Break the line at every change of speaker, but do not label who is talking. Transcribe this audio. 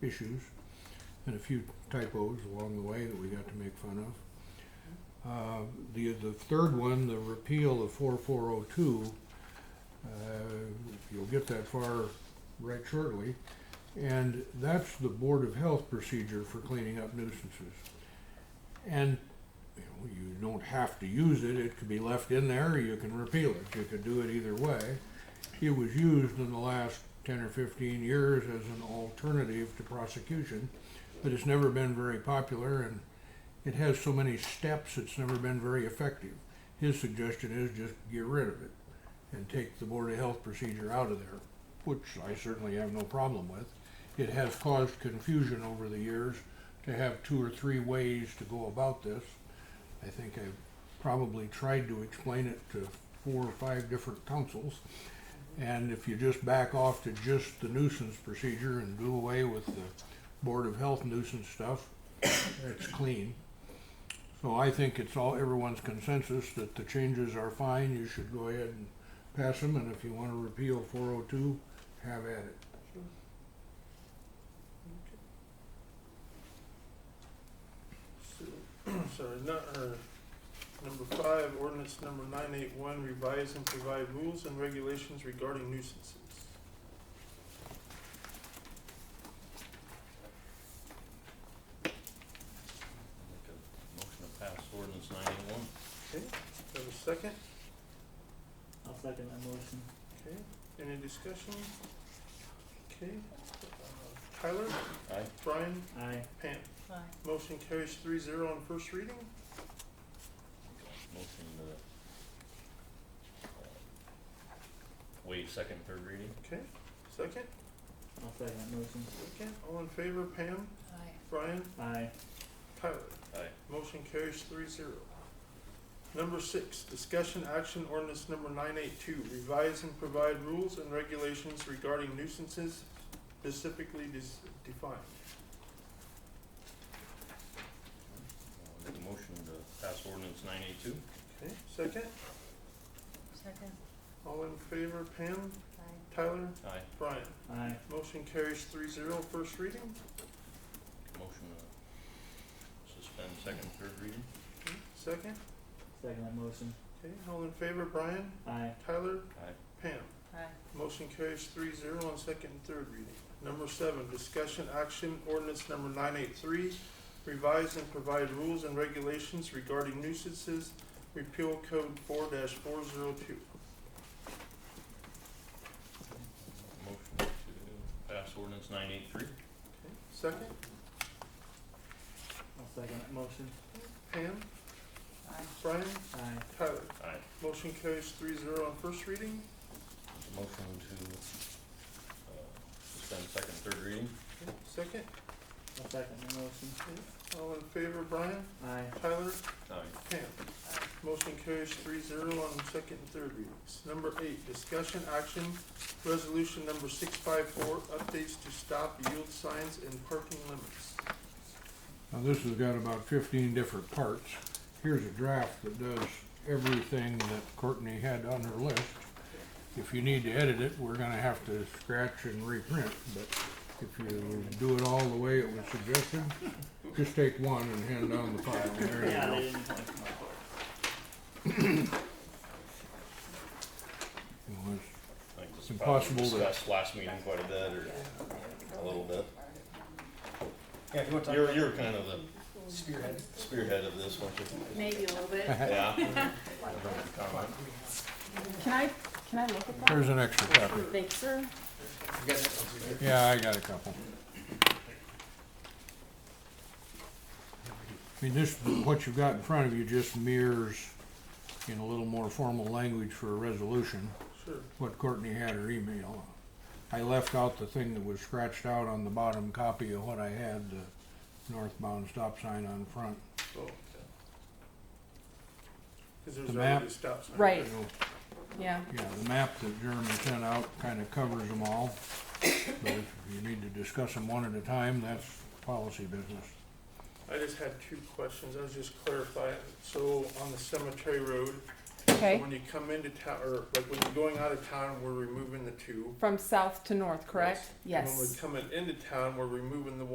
issues and a few typos along the way that we got to make fun of. Uh, The, the third one, the repeal of 4402, uh, you'll get that far right shortly. And that's the Board of Health procedure for cleaning up nuisances. And you know, you don't have to use it, it could be left in there, you can repeal it, you could do it either way. It was used in the last ten or fifteen years as an alternative to prosecution, but it's never been very popular and it has so many steps, it's never been very effective. His suggestion is just get rid of it and take the Board of Health procedure out of there, which I certainly have no problem with. It has caused confusion over the years to have two or three ways to go about this. I think I've probably tried to explain it to four or five different councils. And if you just back off to just the nuisance procedure and do away with the Board of Health nuisance stuff, it's clean. So I think it's all, everyone's consensus that the changes are fine, you should go ahead and pass them, and if you wanna repeal four oh two, have at it.
So, Sorry, not, or, number five, ordinance number nine eight one, revise and provide rules and regulations regarding nuisances.
Make a motion to pass ordinance ninety-one.
Okay, do I have a second?
I'll second that motion.
Okay, any discussion? Okay, uh, Tyler,
Aye.
Brian,
Aye.
Pam. Motion carries three zero on first reading.
Motion to uh, waive second, and third reading.
Okay, second,
I'll second that motion.
second, all in favor, Pam, Brian,
Aye.
Tyler.
Aye.
Motion carries three zero. Number six, discussion action ordinance number nine eight two, revise and provide rules and regulations regarding nuisances specifically dis- defined.
Uh, Make a motion to pass ordinance nine eighty-two.
Okay, second,
Second.
all in favor, Pam,
Aye.
Tyler,
Aye.
Brian.
Aye.
Motion carries three zero, first reading.
Motion to suspend second, and third reading.
Okay, Second,
Second that motion.
okay, all in favor, Brian,
Aye.
Tyler,
Aye.
Pam.
Aye.
Motion carries three zero on second and third reading. Number seven, discussion action ordinance number nine eight three, revise and provide rules and regulations regarding nuisances, repeal code four four zero two.
Motion to pass ordinance nine eighty-three.
Second,
I'll second that motion.
Pam,
Aye.
Brian,
Aye.
Tyler.
Aye.
Motion carries three zero on first reading.
Motion to uh, suspend second, and third reading.
Second,
I'll second that motion.
all in favor, Brian,
Aye.
Tyler,
Aye.
Pam. Motion carries three zero on second and third readings. Number eight, discussion action, resolution number six five four, updates to stop yield signs and parking limits.
Now, this has got about fifteen different parts. Here's a draft that does everything that Courtney had on her list. If you need to edit it, we're gonna have to scratch and reprint, but if you do it all the way it was suggested, just take one and hand down the file. There you
Yeah,
go.
they didn't come
You know, it's-
I think this
It's
probably
impossible to-
Discussed last meeting quite a bit, or a little bit. Yeah, you are you're kind of the spearhead, spearhead of this, weren't you?
Maybe a little bit.
Yeah. I don't have a comment.
Can I, can I look at that?
Here's an extra copy.
Thanks, sir.
Yeah, I got a couple. I mean, this, what you've got in front of you just mirrors in a little more formal language for a resolution,
Sure.
what Courtney had her email. I left out the thing that was scratched out on the bottom copy of what I had, the northbound stop sign on front.
Oh, okay. Cause there's
The map.
already a stop sign.
Right.
You know,
Yeah.
Yeah, the map that Jeremy sent out kinda covers them all, but if you need to discuss them one at a time, that's policy business.
I just had two questions, I was just clarifying, so on the cemetery road, So
Okay,
When you come into town, or like when you're going out of town, we're removing the two.
from south to north, correct?
And
Yes.
When we're coming into town, we're removing the